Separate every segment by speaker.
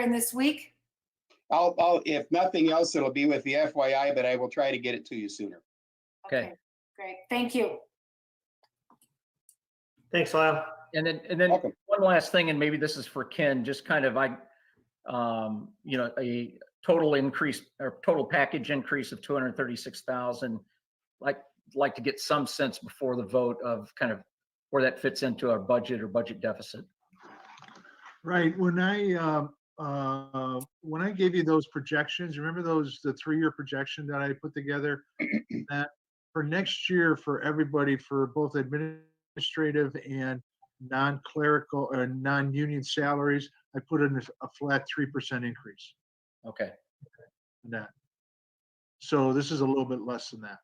Speaker 1: in this week?
Speaker 2: I'll, I'll, if nothing else, it'll be with the FYI, but I will try to get it to you sooner.
Speaker 3: Okay.
Speaker 1: Great, thank you.
Speaker 4: Thanks, Lyle.
Speaker 3: And then, and then
Speaker 2: Welcome.
Speaker 3: one last thing, and maybe this is for Ken, just kind of, I, um, you know, a total increase or total package increase of two hundred thirty-six thousand. Like, like to get some sense before the vote of kind of where that fits into our budget or budget deficit.
Speaker 5: Right, when I, uh, uh, when I gave you those projections, remember those, the three-year projection that I put together? That for next year, for everybody, for both administrative and non-clerical or non-union salaries, I put in a- a flat three percent increase
Speaker 3: Okay,
Speaker 5: in that. So this is a little bit less than that.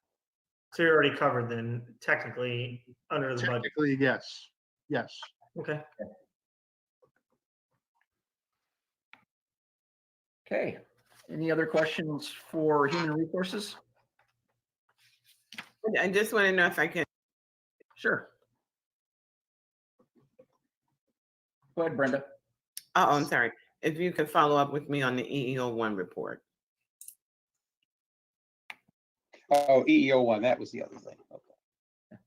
Speaker 4: So you're already covered then technically under the budget.
Speaker 5: Technically, yes, yes.
Speaker 4: Okay.
Speaker 3: okay. Any other questions for human resources?
Speaker 6: I just want to know if I can,
Speaker 3: Sure. Go ahead, Brenda.
Speaker 6: oh, I'm sorry, if you could follow up with me on the EEO one report.
Speaker 2: Oh, EEO one, that was the other thing. Okay.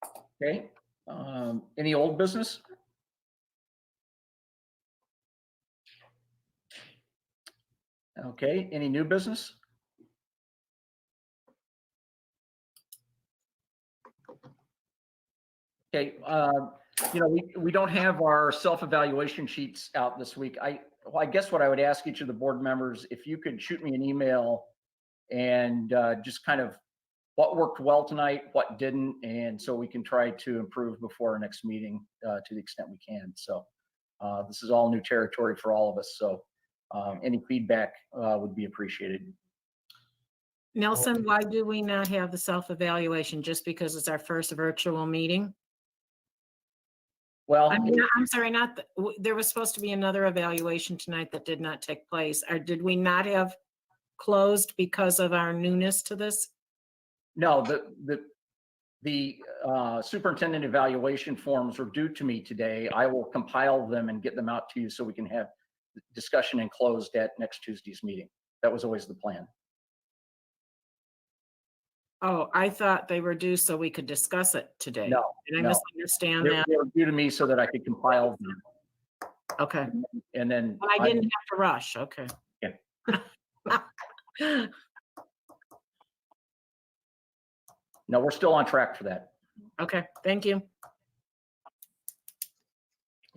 Speaker 3: Okay, um, any old business? Okay, any new business? Okay, uh, you know, we, we don't have our self-evaluation sheets out this week. I, well, I guess what I would ask each of the board members, if you could shoot me an email and, uh, just kind of what worked well tonight, what didn't, and so we can try to improve before our next meeting uh, to the extent we can. So uh, this is all new territory for all of us. So um, any feedback uh, would be appreciated.
Speaker 7: Nelson, why do we not have the self-evaluation just because it's our first virtual meeting?
Speaker 3: Well,
Speaker 7: I mean, I'm sorry, not, th- w- there was supposed to be another evaluation tonight that did not take place. Or did we not have closed because of our newness to this?
Speaker 3: no, the the the uh, superintendent evaluation forms were due to me today. I will compile them and get them out to you so we can have discussion and closed at next Tuesday's meeting. That was always the plan.
Speaker 7: Oh, I thought they were due so we could discuss it today.
Speaker 3: No,
Speaker 7: Did I
Speaker 3: no.
Speaker 7: misunderstand
Speaker 3: they
Speaker 7: that?
Speaker 3: they were due to me so that I could compile them.
Speaker 7: Okay.
Speaker 3: And then.
Speaker 7: Well, I
Speaker 3: I-
Speaker 7: didn't have to rush. Okay. Yeah.
Speaker 3: No, we're still on track for that.
Speaker 7: Okay, thank you.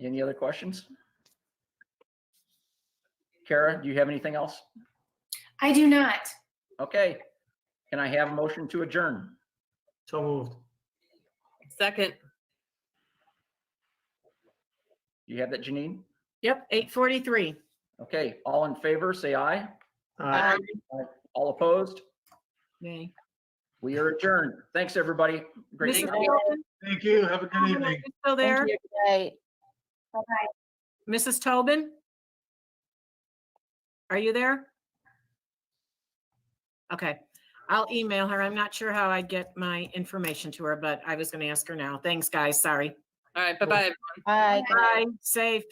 Speaker 3: Any other questions? Kara, do you have anything else?
Speaker 1: I do not.
Speaker 3: Okay. Can I have a motion to adjourn?
Speaker 4: So moved.
Speaker 8: Second,
Speaker 3: Do you have that, Janine?
Speaker 7: Yep, 8:43.
Speaker 3: Okay, all in favor, say aye.
Speaker 4: Uh,
Speaker 3: All opposed?
Speaker 7: Yay.
Speaker 3: We are adjourned. Thanks, everybody. Great.
Speaker 7: Mrs.
Speaker 3: night.
Speaker 7: Tobin,
Speaker 5: Thank you, have a good
Speaker 7: are
Speaker 5: evening.
Speaker 7: you Still there? Mrs. Tobin? Are you there? Okay, I'll email her. I'm not sure how I get my information to her, but I was going to ask her now. Thanks, guys. Sorry.
Speaker 8: all right, bye-bye.
Speaker 7: Bye. Safe.